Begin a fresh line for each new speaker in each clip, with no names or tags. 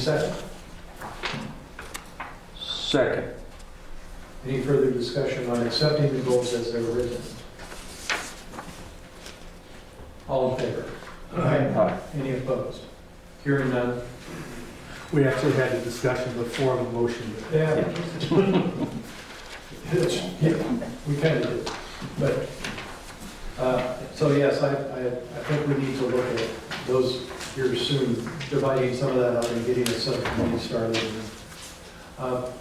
Second,
Second.
any further discussion on accepting the goals as they're written? All in favor?
Aye.
Any opposed? Hearing none?
We actually had a discussion before the motion.
Yeah. We kind of did, but, uh, so yes, I, I, I think we need to look at those here soon, dividing some of that up and getting a subcommittee started. Uh,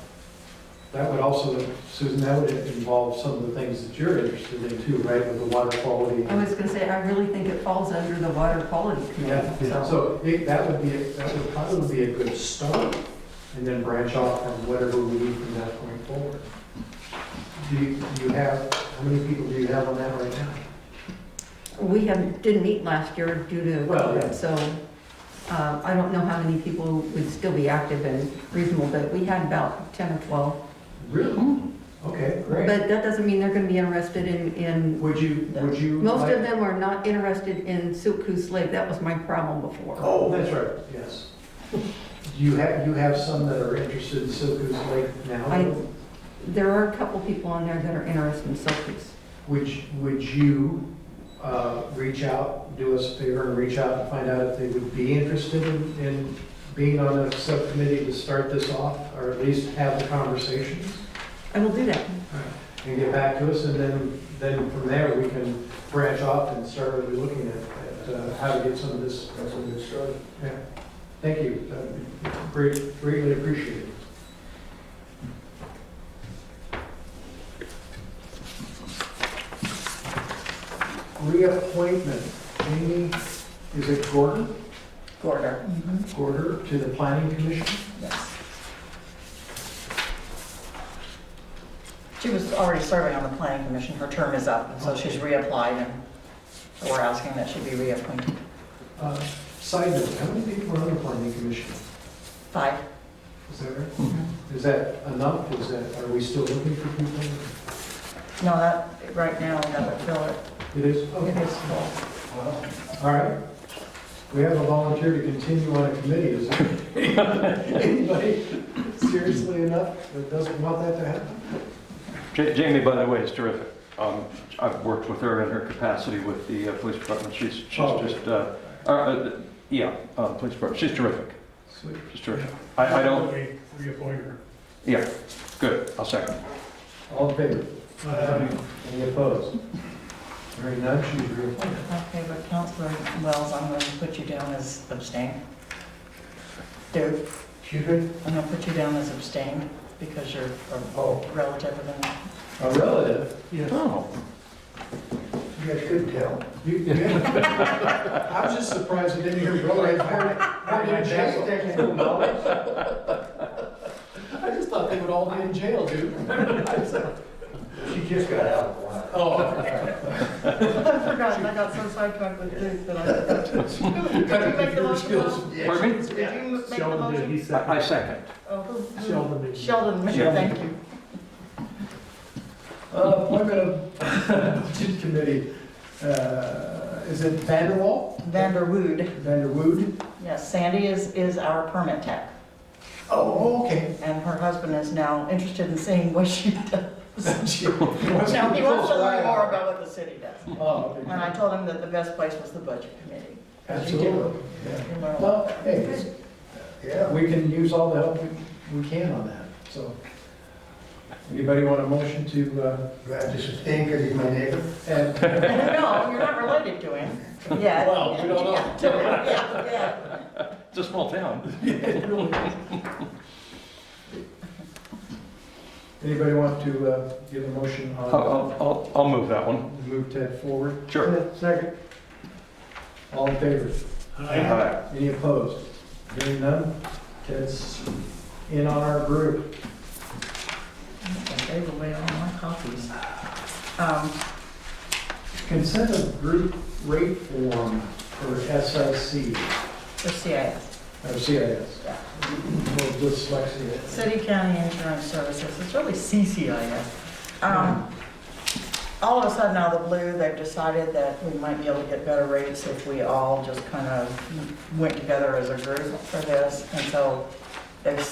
That would also, Susan, that would involve some of the things that you're interested in too, right, with the water quality
I was gonna say, I really think it falls under the water quality committee,
Yeah,
so.
so it- that would be, a- that would probably be a good start, and then branch off from whatever we need from that point forward. Do you, do you have, how many people do you have on that right now?
We have, didn't meet last year due to
Well, yeah.
COVID, so, uh, I don't know how many people would still be active and reasonable, but we had about ten or twelve.
Really?
Hmm.
Okay, great.
But that doesn't mean they're gonna be interested in, in,
Would you, would you?
most
like-
of them are not interested in Silk Coos Lake, that was my problem before.
Oh, that's right, yes. Do you have, you have some that are interested in Silkus Lake now?
I- There are a couple people on there that are interested in Silk Coos.
Would, you- would you, uh, reach out, do us a favor and reach out and find out if they would be interested in, in being on a subcommittee to start this off, or at least have the conversations?
I will do that.
And get back to us, and then, then from there, we can branch off and start really looking at, at uh, how to get some of this. That's a good start. Yeah, thank you, That'd be great, greatly appreciated. Reappointment, Amy, is it Gordon,
Gorder,
Mm-hmm.
Gorder, to the planning commission?
yes. She was already serving on the planning commission, her term is up, and so she's reapplied, and so we're asking that she be reappointed.
Uh, Side note, how many people are on the planning commission?
Five,
Is that right? Is that enough? Is that, are we still looking for people?
no, that, right now, that would fill it,
It is,
it
okay,
is full.
all right. We have a volunteer to continue on a committee, is there anybody seriously enough that doesn't want that to happen?
Ja- Jamie, by the way, is terrific. Um, I've worked with her in her capacity with the uh, police department. She's, she's
Oh.
just, uh, uh, uh, yeah, uh, police department, she's terrific.
Sweet.
She's terrific. I, I don't,
We Reappoint her.
yeah, good, I'll second.
All in favor?
Aye.
Any opposed? Hearing none, she's reappointed.
Okay, but Counselor Wells, I'm going to put you down as abstain. Dude,
Excuse me?
I'm going to put you down as abstain because you're
Oh.
a relative of the
A relative?
Oh.
You guys couldn't tell. I was just surprised it didn't hear relative. How did jail technical knowledge? I just thought they would all be in jail, dude.
She just got out of line.
Oh,
I forgot, I got so sidetracked with Duke that I forgot. Did you make the motion? Bob?
Pardon me?
Did you make the
Sheldon did,
motion?
he
I I
seconded.
second.
Oh, who- who-
Sheldon did.
Sheldon,
Sheldon.
thank you.
Uh, Appointment of Budget Committee, uh, is it Vanderwall,
Vanderwood,
Vanderwood?
yes, Sandy is, is our permit tech,
Oh, okay.
and her husband is now interested in seeing what she does. Now, he wants to learn more about what the city does,
Oh, okay.
and I told him that the best place was the budget committee.
Absolutely.
Yeah.
You learn a lot.
Well, hey, it's-
Yeah.
we can use all the help we- we can on that, so. Anybody want a motion to uh,
Do I just abstain because he's my neighbor?
add?
No, you're not related to him, yeah.
Well, we don't know.
know.
It's a small town.
Anybody want to uh, give a motion
I'll,
on,
I'll, I'll- I'll move that one.
move Ted forward?
Sure.
Second. All in favor?
Aye.
Any opposed? Hearing none, Ted's in on our group.
Gave away all my copies. Um,
Consent of group rate form for SIC,
the CIS.
or CIS.
Yeah.
Well, dyslexia.
City County Insurance Services, it's really CCIS. Um, all of a sudden, out of the blue, they've decided that we might be able to get better rates if we all just kind of went together as a group for this. And so they've